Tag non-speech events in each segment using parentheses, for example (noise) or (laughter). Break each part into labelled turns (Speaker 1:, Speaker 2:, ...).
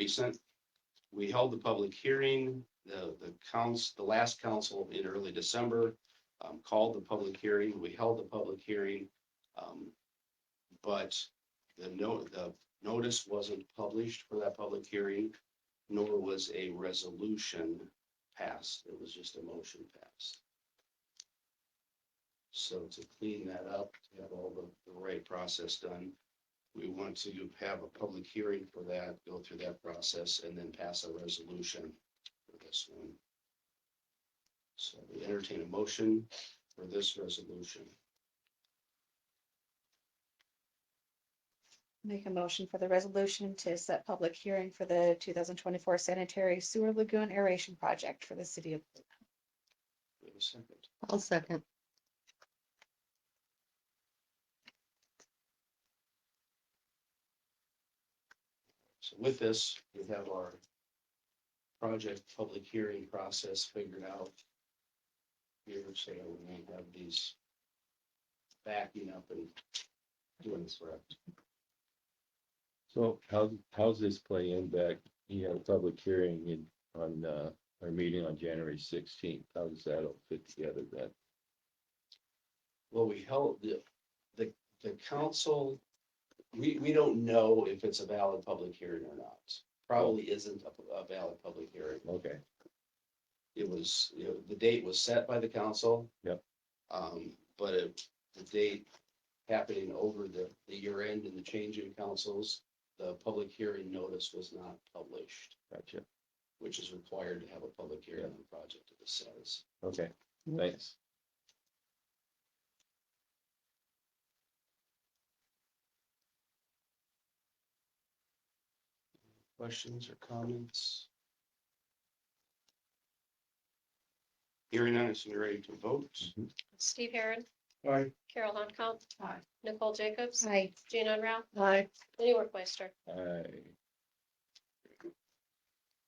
Speaker 1: recent. We held the public hearing, the, the council, the last council in early December, um, called the public hearing, we held the public hearing. um, But the no, the notice wasn't published for that public hearing, nor was a resolution passed. It was just a motion passed. So to clean that up, to have all the, the right process done, we want to have a public hearing for that, go through that process, and then pass a resolution for this one. So we entertain a motion for this resolution.
Speaker 2: Make a motion for the resolution to set public hearing for the two thousand twenty-four sanitary sewer lagoon aeration project for the city of. Blue Mountain.
Speaker 1: Wait a second.
Speaker 3: I'll second.
Speaker 1: So with this, we have our project public hearing process figured out. Here, so we may have these backing up and doing this right.
Speaker 4: So how, how's this play in back, you have a public hearing in, on, uh, our meeting on January sixteenth, how does that all fit together then?
Speaker 1: Well, we held the, the, the council, we, we don't know if it's a valid public hearing or not. Probably isn't a, a valid public hearing.
Speaker 4: Okay,
Speaker 1: It was, you know, the date was set by the council.
Speaker 4: Yep.
Speaker 1: Um, but it, the date happening over the, the year end and the change in councils, the public hearing notice was not published,
Speaker 4: gotcha,
Speaker 1: which is required to have a public hearing on a project of this size.
Speaker 4: okay, thanks.
Speaker 1: Questions or comments? Hearing none, so we're ready to vote.
Speaker 4: Mm-hmm.
Speaker 5: Steve Heron,
Speaker 1: Aye.
Speaker 5: Carol Hunkell.
Speaker 2: Aye.
Speaker 5: Nicole Jacobs,
Speaker 2: Aye.
Speaker 5: Jean Enra,
Speaker 3: Aye.
Speaker 5: Lenny Workmeister.
Speaker 4: Aye.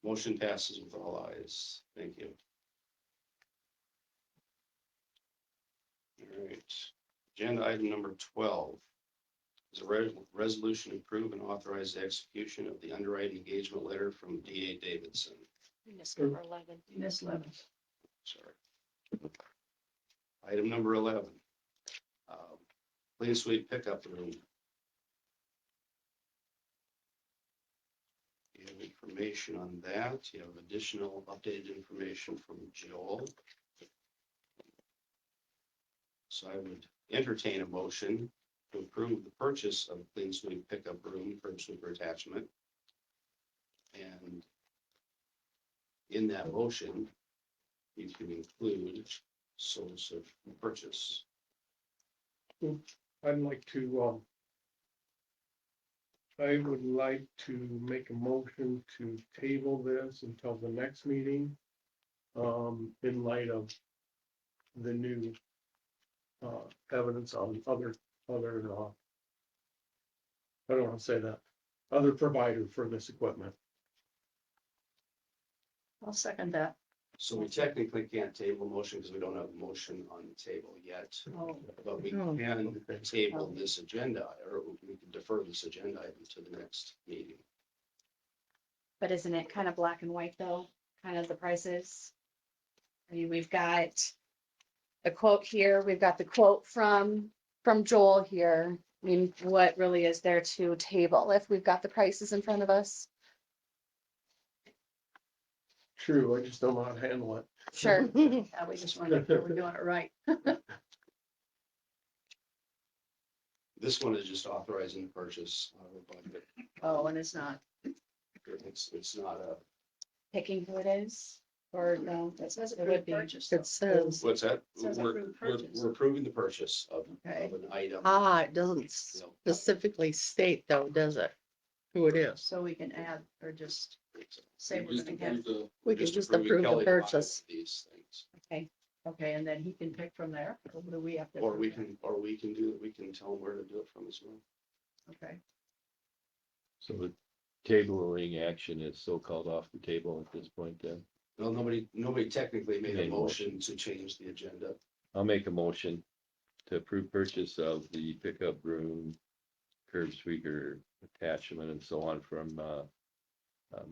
Speaker 1: Motion passes with all eyes. Thank you. All right, agenda item number twelve is a re- resolution to approve and authorize the execution of the underwriting engagement letter from D A Davidson.
Speaker 5: I missed number eleven.
Speaker 6: Miss Levin.
Speaker 1: Sorry. Item number eleven. um, Clean sweep pickup room. You have information on that. You have additional updated information from Joel. So I would entertain a motion to approve the purchase of clean sweep pickup room, curb sweeper attachment. And in that motion, you can include source of purchase.
Speaker 7: I'd like to, um, I would like to make a motion to table this until the next meeting, um, in light of the new, uh, evidence on other, other, uh, I don't want to say that, other provider for this equipment.
Speaker 6: I'll second that.
Speaker 1: So we technically can't table motion because we don't have a motion on the table yet,
Speaker 6: Oh,
Speaker 1: but we
Speaker 3: No.
Speaker 1: can table this agenda or we can defer this agenda item to the next meeting.
Speaker 2: But isn't it kind of black and white though, kind of the prices? I mean, we've got a quote here, we've got the quote from, from Joel here. I mean, what really is there to table if we've got the prices in front of us?
Speaker 7: True, I just don't know how to handle it.
Speaker 2: Sure,
Speaker 6: (laughs) yeah, we just want to make sure we're doing it right.
Speaker 1: This one is just authorizing the purchase. of a budget.
Speaker 6: Oh, and it's not.
Speaker 1: It's, it's not a,
Speaker 2: picking who it is, or no,
Speaker 6: It
Speaker 2: that's,
Speaker 6: says
Speaker 2: it would
Speaker 6: approved
Speaker 2: be.
Speaker 6: purchase. though.
Speaker 3: It says,
Speaker 1: what's that?
Speaker 6: Says
Speaker 1: We're,
Speaker 6: approved
Speaker 1: we're
Speaker 6: purchase.
Speaker 1: we're approving the purchase of,
Speaker 6: Okay,
Speaker 1: of an item.
Speaker 3: ah, it doesn't
Speaker 1: No.
Speaker 3: specifically state though, does it? Who it is.
Speaker 6: so we can add or just say we're
Speaker 1: Just
Speaker 6: gonna get,
Speaker 1: approve the-
Speaker 3: We can just
Speaker 1: approving
Speaker 3: approve
Speaker 1: Kelly
Speaker 3: the
Speaker 1: to buy
Speaker 3: purchase.
Speaker 1: These things.
Speaker 6: okay, and then he can pick from there. Or do we have to?
Speaker 1: Or we
Speaker 6: approve
Speaker 1: can, or we can do, we can tell them where to do it from as well.
Speaker 6: it? Okay,
Speaker 4: So the tabling action is so-called off the table at this point then?
Speaker 1: Well, nobody, nobody technically made a
Speaker 4: Made a motion.
Speaker 1: motion to change the agenda.
Speaker 4: I'll make a motion to approve purchase of the pickup room, curb sweeper attachment and so on from, uh,